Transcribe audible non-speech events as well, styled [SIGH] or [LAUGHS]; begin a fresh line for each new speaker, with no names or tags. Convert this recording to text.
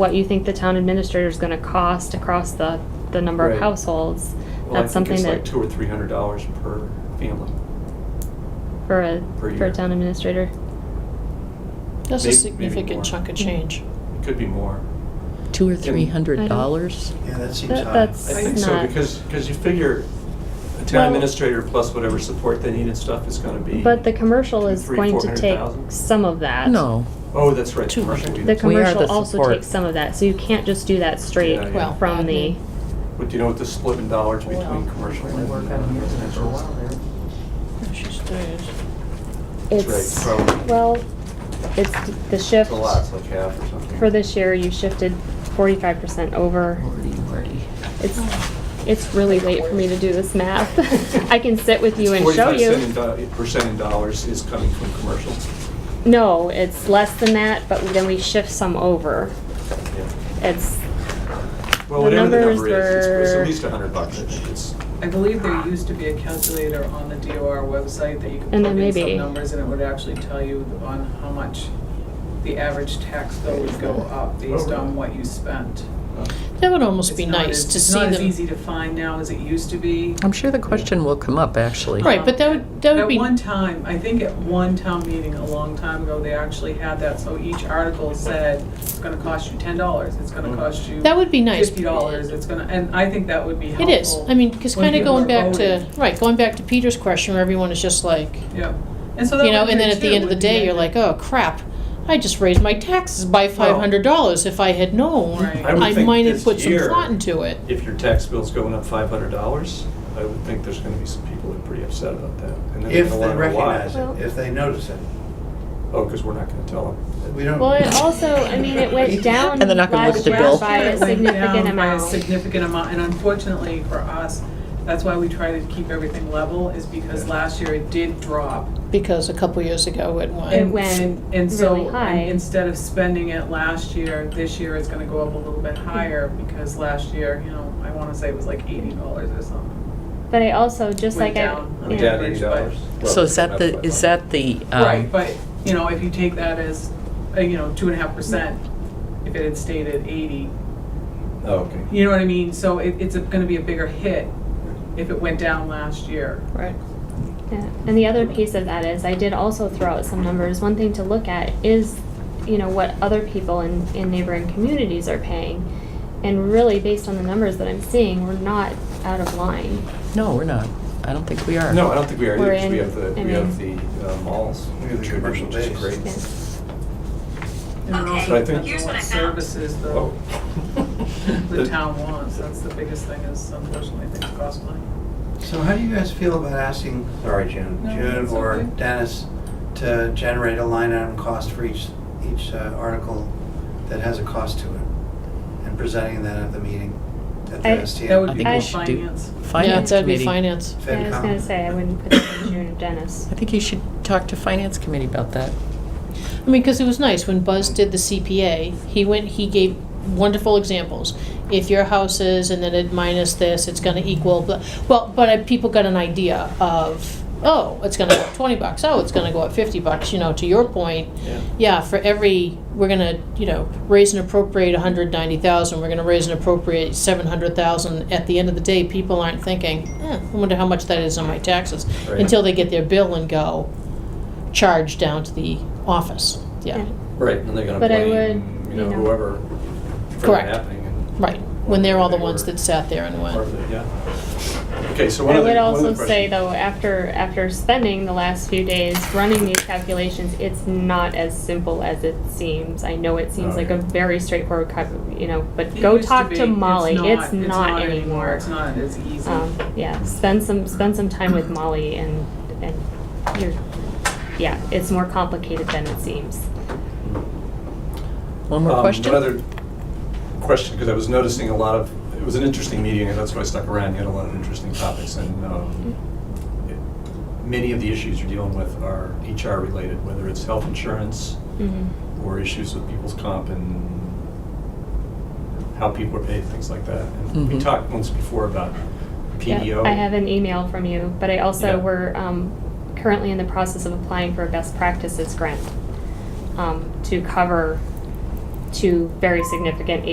what you think the town administrator is gonna cost across the, the number of
Right.
households.
Well, I
That's
think
something
it's
that,
like two or three hundred dollars per family.
for a, for
per year.
a town administrator.
That's
May- maybe
a
more.
significant chunk of change.
It could be more.
Two or
Can-
three hundred
I don't-
dollars?
Yeah, that seems
That-
high.
that's-
I
It's
think so,
not-
because, because you figure a
Well-
town administrator plus whatever support they need and stuff is gonna be.
But the commercial is
Three,
going to
400,000?
take some of that.
No,
Oh, that's right.
Two
commercial
hundred.
The
do that.
We are
commercial
the
also
support.
takes some of that, so you can't just do that straight
Yeah, yeah.
Well,
from the,
admin.
But do you know what the split in dollars between commercial
Really
and
work on yours for
residential
a while
is?
there.
She's doing
That's
it's,
right, from-
well, it's the
It's
shift.
a lot, it's like half or something.
For this year, you [LAUGHS] shifted forty-five percent over.
Lordy, lordy.
It's, it's really late for me to do this math. [LAUGHS] I can sit with you and
It's
show
45
you.
cent in do- Percent in dollars is coming from commercial.
No, it's less than that, but then we shift some over.
Yeah.
It's,
Well,
The
whatever the
numbers
number is, it's- it's
were-
at least a hundred bucks, I think it's.
I believe there used to be a calculator on the DOR website that you could
And
put
there may
in
be.
some numbers and it would actually tell you on how much the average tax bill would go up based on what you spent.
uh,
That would almost be
It's not
nice
as-
to see
It's not as
them.
easy to find now as it used to be. Um,
I'm sure the question will come up, actually.
Right, but that would, that would be,
At one time, I think at one town meeting a long time ago, they actually had that, so each article said, it's gonna cost you ten dollars, it's gonna cost you
that would be nice.
fifty dollars, it's gonna, and I think that would be helpful.
It is, I mean, because
when
kind of
people
going
are
back to,
voting.
right, going back to Peter's question where everyone is just like,
Yeah, and so that
you know,
would be
and then at
too,
the end of the
would be
day, you're
in-
like, oh crap, I just raised my taxes by five hundred dollars. If I had known,
Right.
I would
I
think
might have
this
put some
year-
thought into it.
If your tax bill's going up five hundred dollars, I would think there's gonna be some people that are pretty upset about that. and they're
If
gonna
they
wanna know why.
recognize
Well-
it, if they notice it.
Oh, because we're not gonna tell them.
We don't.
well, it also, I mean, it went down
And they're not gonna look
last
at the
year
bill.
by a significant
It went down By a
amount.
significant amount, and unfortunately for us, that's why we try to keep everything level, is because last year it did drop.
Because a couple years ago it
And-
went,
went
and- and so,
really high.
and Instead of spending it last year, this year it's gonna go up a little bit higher, because last year, you know, I wanna say it was like eighty dollars or something.
But I also, just
Went
like I,
down.
yeah.
Yeah.
Down $80.
So is that the, is that the, um,
Right, but, you know, if you take that as, uh, you know, two and a half percent, if it had stayed at eighty,
Oh, okay.
you know what I mean? So it, it's gonna be a bigger hit if it went down last year.
right,
Yeah, and the other piece of that is I did also throw out some numbers. One thing to look at is, you know, what other people in, in neighboring communities are paying. And really, based on the numbers that I'm seeing, we're not out of line.
no, we're not. I don't think we are.
No, I don't think we are either,
We're
'cause we
in-
have the,
I
we have the uh, malls.
We have the commercial
which is
base.
great.
Yeah.
And it
So I
also
think-
depends on what services the,
Oh. [LAUGHS]
the town wants. That's the biggest thing is unfortunately things cost money.
So how do you guys feel about asking, sorry, June,
No,
June
it's
or
okay.
Dennis to generate a line item cost for each, each uh, article that has a cost to it? And presenting that at the meeting, at the
I-
That
STM.
would be
I
more
think we should do-
finance.
yeah,
Finance
that'd be
committee. I
finance.
I was gonna
FinCom.
say, I wouldn't put it in June or Dennis.
think you should talk to finance committee about that.
I mean, because it was nice when Buzz did the CPA. He went, he gave wonderful examples. If your house is, and then it minus this, it's going to equal. Blah. Well, but uh, people got an idea of, oh, it's going to go up twenty bucks. Oh, it's going to go up fifty bucks. You know, to your point,
Yeah.
yeah. For every, we're going to, you know, raise and appropriate one hundred ninety thousand. We're going to raise and appropriate seven hundred thousand. At the end of the day, people aren't thinking, eh, I wonder how much that is on my taxes,
Right.
until they get their bill and go charge down to the office. Yeah,
Right, and they're gonna
But I
blame,
would,
you
you
know,
know-
whoever for that
Correct.
happening. and
right. When they're all the
they
ones
were
that sat there and
part
went,
of it, Yeah. Okay, so one
I
other,
would
one other
also say
question.
though, after, after spending the last few days running these calculations, it's not as simple as it seems. I know it seems
Oh,
like
yeah.
a very straightforward, cal- you know, but
It
go
used
talk
be.
to Molly. It's not
anymore.
anymore.
It's not as easy.
Um, yeah, spend some, spend some time with Molly and, and you're, yeah, it's more complicated than it seems.
One more
Um,
question?
One other question, because I was noticing a lot of, it was an interesting meeting, and that's why I stuck around, you had a lot of interesting topics, and um, it- many of the issues you're dealing with are HR related, whether it's health insurance,
Mhm.
or issues with people's comp and how people are paid, things like that. And We
Mhm.
talked once before about
Mm-hmm. Yeah,
PDO.
I have an email from you, but I also,
Yeah.
we're um, currently in the process of applying for a best practices grant um, to cover two very significant